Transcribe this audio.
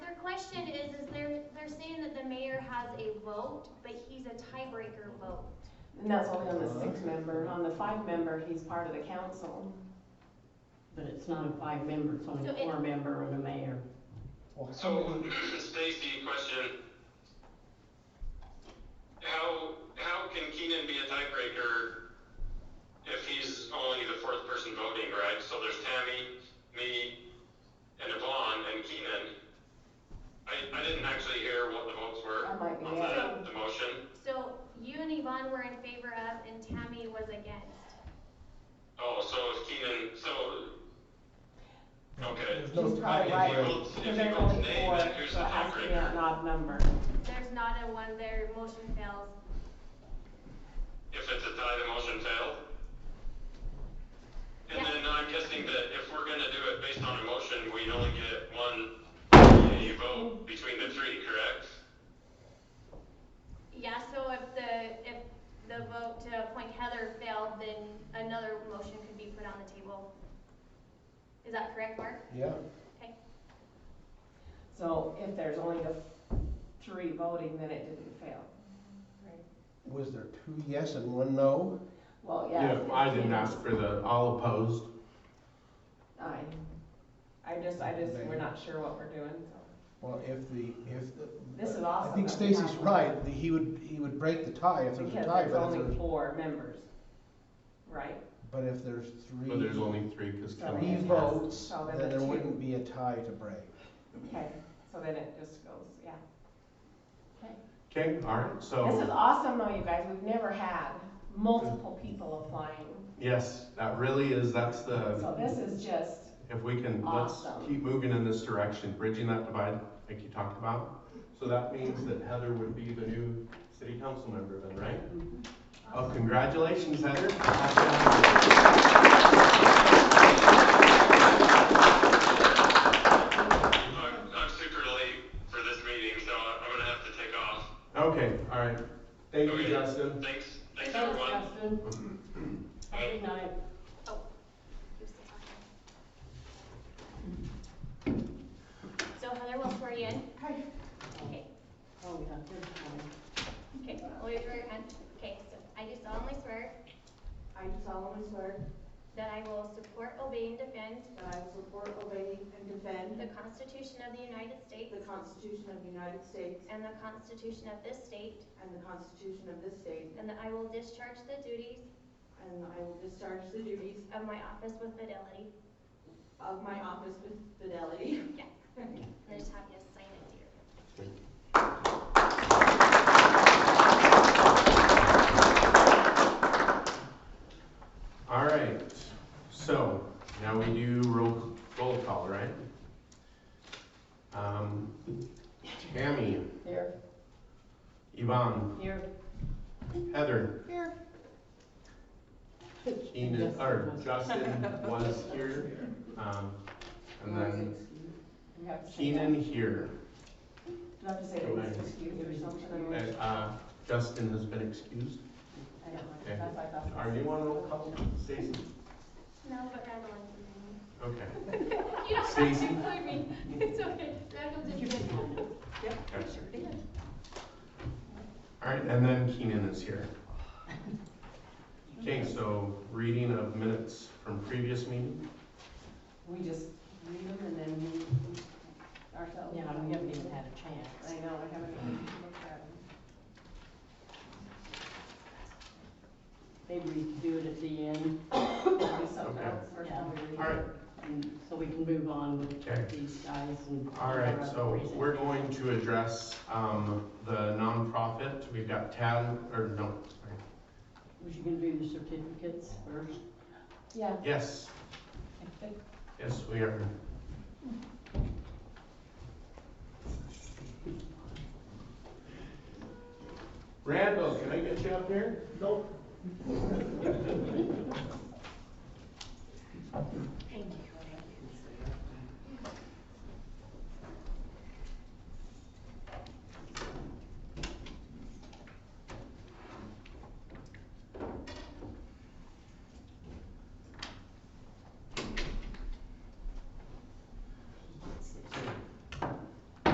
they're saying that the mayor has a vote, but he's a tiebreaker vote. And that's only on the six member, on the five member, he's part of the council. But it's not a five member, it's only So a it- four member and a mayor. Well, So, somebody, Stacy, question. How, how can Keenan be a tiebreaker if he's only the fourth person voting, right? So there's Tammy, me, and Yvonne, and Keenan. I, I didn't actually hear what the votes were I might be on out. the, the motion. So you and Yvonne were in favor of and Tammy was against. Oh, so if Keenan, so, okay. There's no He's probably right, If he votes, because if he there's votes only nay, four, then who's the so it has to be an tiebreaker? odd number. There's not a one there, motion fails. If it's a tie, the motion failed? And then uh, I'm guessing that if we're gonna do it based on a motion, we only get one yea vote between the three, correct? Yeah, so if the, if the vote to appoint Heather failed, then another motion could be put on the table. Is that correct, Mark? yeah, Okay. So if there's only the three voting, then it didn't fail. was there two yes and one no? Well, yeah. Yeah, I didn't ask for the, all opposed. Aye. I just, I just, we're not sure what we're doing, so. Well, if the, if the. This is awesome. I think Stacy's right, the- he would, he would break the tie if there's a Because tie, there's but if only there's, four members, right? but if there's three. But there's only three, cause So Kelly. Three it has- votes, so then then the there Oh, two- wouldn't be a tie to break. Okay, so then it just goes, yeah. Okay. Okay, alright, This is so, awesome though, you guys, we've never had multiple people applying, yes, that really is, that's so the, this is just, if we can, let's Awesome. keep moving in this direction, bridging that divide, like you talked about. So that means that Heather would be the new city council member then, right? Mm-hmm. Oh, congratulations, Heather. I'm, I'm super late for this meeting, so I'm gonna have to take off. Okay, alright, thank you, Okay. Justin. Thanks, thanks everyone. Justin. Have a good night. You're still talking. So Heather, we'll swear you in. Okay. Okay, Oh, we got this one. okay, raise your hand. Okay, so I do solemnly swear I do solemnly swear that I will support, obey, and defend that I will support, obey, and the defend Constitution of the United States the Constitution of the United States and the Constitution of this state, and the Constitution of this state, and that I will discharge the duties and I will discharge the duties of my office with fidelity. of my office with fidelity. Yeah. And I just have you sign it here. All right, so now we do roll, roll call, right? Um, Tammy, here, Yvonne, here. Heather. Keenan, or Justin was here, um, and then You have to say Keenan here. that. You have to say that it's excused or something. And, uh, Justin has been excused. I don't know. Okay. That's what I thought. Are you on roll call, Stacy? No, but Madeline can Okay. do it. You don't have to Stacy? include me. It's okay. Madeline You just can did come now. Yes, sir. All right, and then Keenan is here. Okay, so reading of minutes from previous meeting. We just read them and then move ourselves. Yeah, we haven't even had a chance. I know, I haven't even looked at them. They redo it at the end, We'll do something Okay. else first Yeah. when we read All right, and so we can move on Okay. with these guys and. all right, so Reason. we're going to address, um, the nonprofit. We've got Tad, or no, sorry. Was you gonna do the certificates first? Yeah. Yes, yes, we are. Randall, can I get you up here? Nope.